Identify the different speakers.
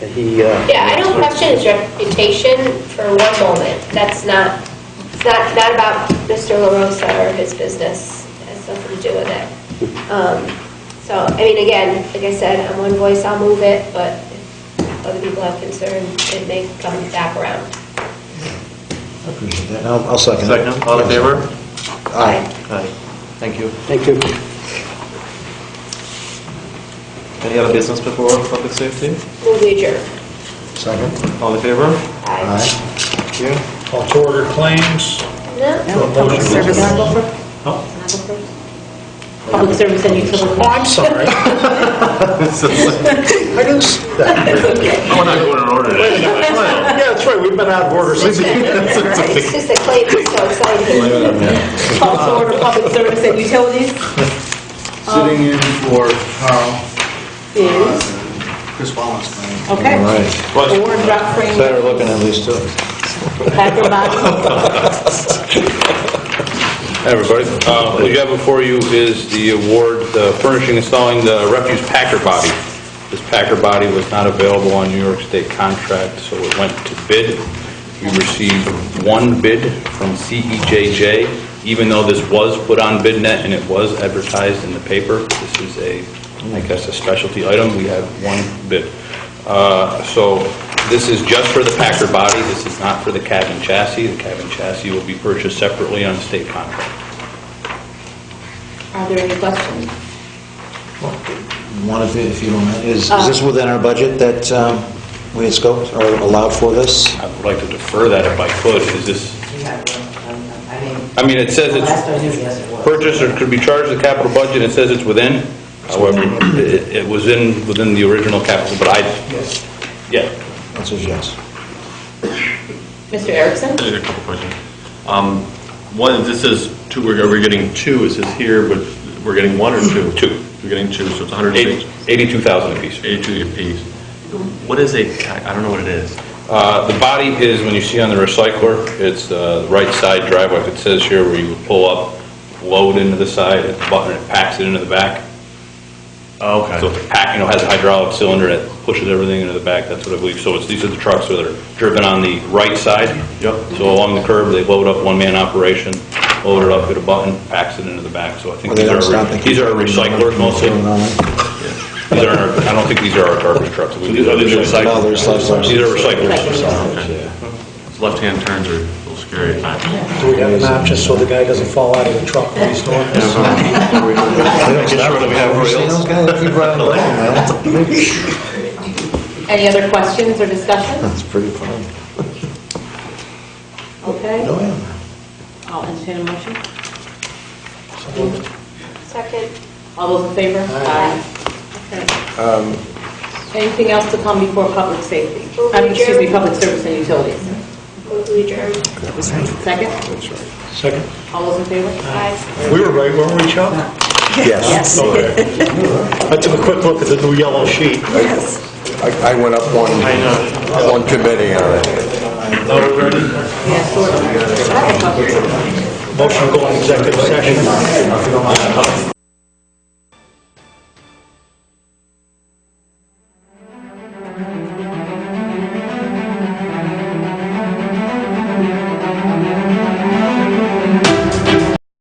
Speaker 1: And he, uh...
Speaker 2: Yeah, I don't question his reputation for one moment. That's not, it's not, not about Mr. LaRosa or his business. It has nothing to do with it. Um, So, I mean, again, like I said, I'm one voice, I'll move it, but if other people have concern, it may come back around.
Speaker 3: I appreciate that. I'll I'll second it.
Speaker 4: Second, all in favor?
Speaker 3: Aye.
Speaker 4: Aye. Thank you.
Speaker 1: Thank you.
Speaker 4: Any other business before public safety?
Speaker 2: Move adjourned.
Speaker 3: Second.
Speaker 4: All in favor?
Speaker 2: Aye.
Speaker 4: Thank you.
Speaker 5: Call to order claims.
Speaker 6: No, Public service. Can I go first? Can I go first? Public service and
Speaker 5: Oh,
Speaker 6: utilities.
Speaker 5: I'm sorry. I didn't see that.
Speaker 7: We're not going in order today.
Speaker 5: Yeah, that's right, we've been out of order since.
Speaker 2: It's just that Clayton's so excited.
Speaker 6: Call to order public service and utilities
Speaker 8: Sitting in for Carl,
Speaker 6: is,
Speaker 8: Chris Wallace. man.
Speaker 3: All
Speaker 6: okay,
Speaker 3: right.
Speaker 6: award drop frame,
Speaker 3: Better looking at least, uh, too.
Speaker 6: Packer box.
Speaker 7: Hi, everybody. Uh, What you got before you is the award uh, furnishing and installing the refuse packer body. This packer body was not available on New York State contract, so it went to bid. We received one bid from CEJJ, even though this was put on BidNet and it was advertised in the paper. This is a, I guess, a specialty item. We had one bid. Uh, So this is just for the packer body. This is not for the cab and chassis. The cab and chassis will be purchased separately on state contract.
Speaker 6: Are there any questions?
Speaker 3: One of it, if you don't mind, is, is this within our budget that um, we had scoped or allowed for this?
Speaker 7: I would like to defer that if I could. Is this,
Speaker 9: We have, um, I mean,
Speaker 7: I mean, it says
Speaker 9: last I
Speaker 7: it's
Speaker 9: knew, yes, it was.
Speaker 7: purchased or could be charged to the capital budget. It says it's within. However, it it was in, within the original capital, but I, yeah.
Speaker 3: Answer is yes.
Speaker 6: Mr. Erickson?
Speaker 7: I had a couple questions. Um, One, this is two, we're are we getting two, it says here, but we're getting one or two? Two. We're getting two, so it's 180. 82,000 apiece. 82 apiece. What is a, I don't know what it is. Uh, The body is, when you see on the recycler, it's uh, the right side driveway, if it says here where you pull up, load into the side, hit the button, it packs it into the back.
Speaker 4: Okay.
Speaker 5: Oh,
Speaker 7: So it's a pack, you know, has a hydraulic cylinder that pushes everything into the back, that's what I believe. So it's, these are the trucks that are driven on the right side. Yep. So along the curb, they load up, one-man operation, load it up, hit a button, packs it into the back. So I
Speaker 3: Or
Speaker 7: think
Speaker 3: they
Speaker 7: these
Speaker 3: don't stop,
Speaker 7: are,
Speaker 3: they keep-
Speaker 7: these are recyclers mostly. These aren't, our- I don't think these are our garbage trucks. So
Speaker 4: these are the recyclers?
Speaker 3: No, they're recyclers.
Speaker 7: These are recyclers.
Speaker 4: Left-hand turns are a little scary at times.
Speaker 5: Do we have an option so the guy doesn't fall out of the truck when he's doing this?
Speaker 3: Have you seen those guys that keep riding along, man?
Speaker 6: Any other questions or discussion?
Speaker 3: That's pretty funny.
Speaker 6: Okay,
Speaker 3: No, yeah.
Speaker 6: I'll entertain a motion.
Speaker 2: Second.
Speaker 6: All those in favor?
Speaker 5: Aye.
Speaker 6: Aye.
Speaker 3: Um,
Speaker 6: Okay. Anything else to come before public safety?
Speaker 2: Move
Speaker 6: Um, Excuse me,
Speaker 2: adjourned.
Speaker 6: public service and utilities.
Speaker 2: Move adjourned.
Speaker 6: Second?
Speaker 5: Second.
Speaker 6: All those in favor?
Speaker 2: Aye.
Speaker 5: We were right, weren't we, Chuck?
Speaker 10: Yes.
Speaker 5: I took a quick look at the new yellow sheet.
Speaker 10: I I went up one, one committee on it.
Speaker 6: Yes, sort of. That's a public-
Speaker 5: Motion to go in executive session.